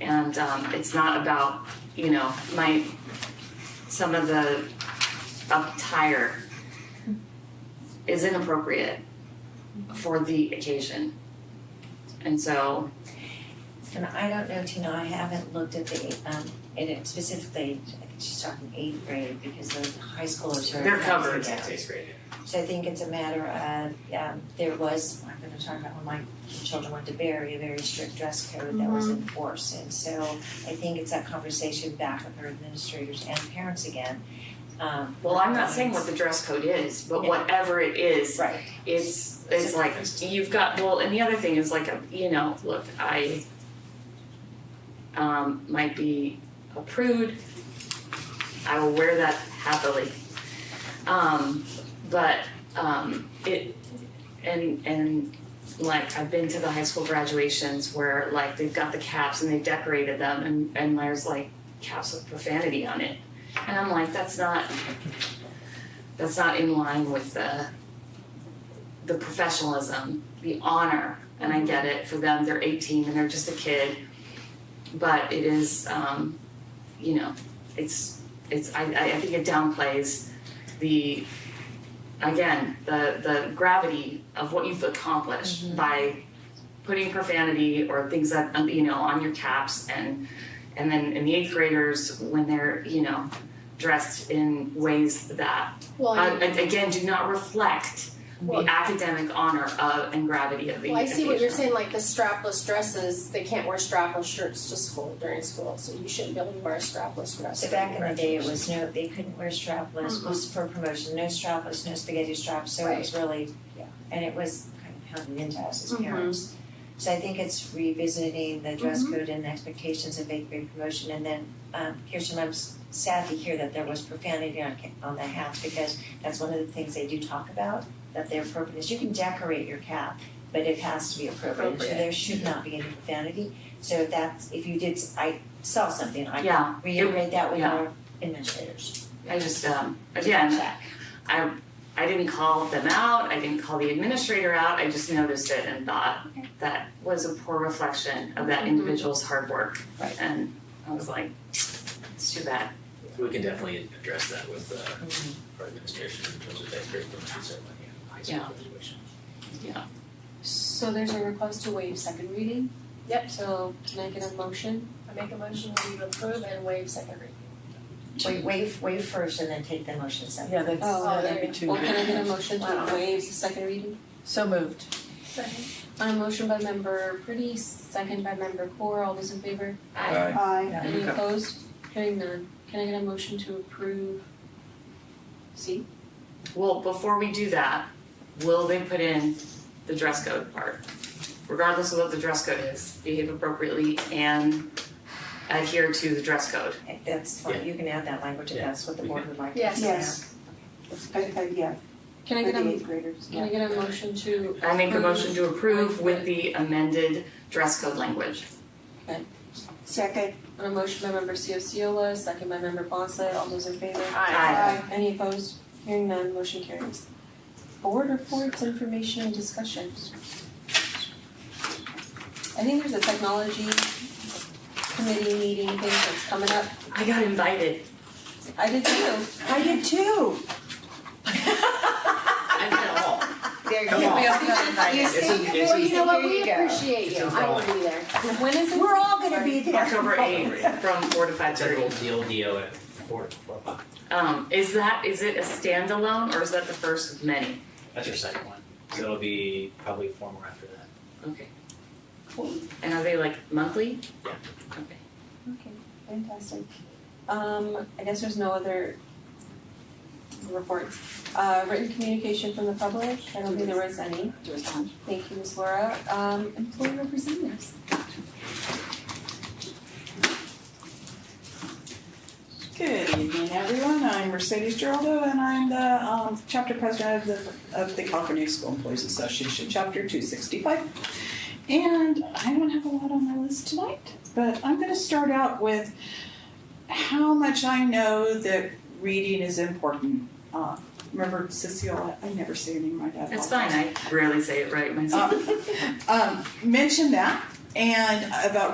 and um, it's not about you know my some of the attire is inappropriate for the occasion, and so And I don't know, Tina, I haven't looked at the, um, and it specifically, I think she's talking eighth grade because the high schoolers are. They're dressed covered. down. Sixth grade. So I think it's a matter of, um, there was, I'm gonna talk about when my children went to Barry, a very strict dress code that was enforced. And so I think it's that conversation back with our administrators and parents again. Um, well, I'm not saying what the dress code is, but Yeah. whatever it is, right, it's it's like you've got well and the other thing is like you know look i um, might be a prude i will wear that happily um, but um, it and and like i've been to the high school graduations where like they've got the caps and they've decorated them and and there's like caps with profanity on it and i'm like that's not that's not in line with the the professionalism, the honor, and I get it for them. They're 18 and they're just a kid, but it is, um, you know, it's it's. I, I I think it downplays the again the the gravity of what you've accomplished by putting profanity or things that um, you know on your caps and and then in the eighth graders when they're you know dressed in ways that Well, uh, I, and again do not reflect Well- the academic honor of and gravity of the well, I see what you're occasion. saying, like the strapless dresses, they can't wear strapless shirts to school during school, so you shouldn't be able to wear a strapless dress. So back in the day, it was no, they couldn't wear strapless, was for promotion, no strapless, no spaghetti straps, so it was really, yeah, and it was kind of pounded into us as Mhm. parents. So I think it's revisiting the dress code and expectations of eighth grade promotion, and then, um, Kirsten, I'm s- sad to hear that there was profanity on, ca- on the hats, because that's one of the things they do talk about, that their appropriateness, you can decorate your cap, but it has to be appropriate, so Appropriate. there should not be any profanity, so if that's, if you did, s- I saw something, I Yeah, reiterate that with Yeah. our administrators. I just um, again, Check. I I didn't call them out. I didn't call the administrator out. I just noticed it and thought that was a poor reflection of that Mhm. individual's hard work. Right. And I was like, it's too bad. We can definitely address that with uh, our administration in terms of that grade promotion ceremony and high Yeah. school graduation. So there's a request to waive second reading? Yep. So can I get a motion? I make a motion we approve and waive second reading. Wait, waive, waive first and then take the motion second. Yeah, that's, uh, Oh, that'd there be you too Or much. can I get a motion to Wow. waive the second reading? So moved. On a motion by member Pretty, second by member Core, all those in favor? I Any opposed? Hearing none. Can I get a motion to approve C? well, before we do that, will they put in the dress code part? Regardless of what the dress code is, behave appropriately and adhere to the dress code. If That's Yeah. fine, you can add that language if Yeah, that's what the we board would like. Yes. Yes. I, I, yeah, Can I for get the a, eighth graders, can I get a motion to I make a motion to approve with the amended dress code language. Second, On a motion by member Ciola, second by member Bonsley, all those in favor? Aye. Any opposed? Hearing none, motion carries. Board reports, information, and discussions. I think there's a technology committee meeting thing that's coming up. I got invited. I did too. I did too. I did all. There you Come on. go. We also got You It's see, in- it's well, you in- know what, Here we you go. appreciate It's you, in I will be there. When is it? We're all gonna be there. October eighth from four to five It's like thirty. old DLDO at four, four o'clock. Um, is that, is it a standalone or is that the first of many? That's your second one. So it'll be probably four more after that. Okay. Cool. And are they like monthly? Yeah. Okay. Okay, fantastic. Um, I guess there's no other reports. Uh, written communication from the public, I don't think there was any. Thank you, Ms. Laura. Um, employee representatives. Good evening, everyone. I'm Mercedes Geraldo, and I'm the um, chapter president of the, of the California School Employees Association, Chapter 265. And I don't have a lot on my list tonight, but I'm going to start out with how much I know that reading is important. Uh, remember, Cecilia, I never say your name right. I It's apologize. fine, I rarely say it right myself. Um, um, mentioned that and about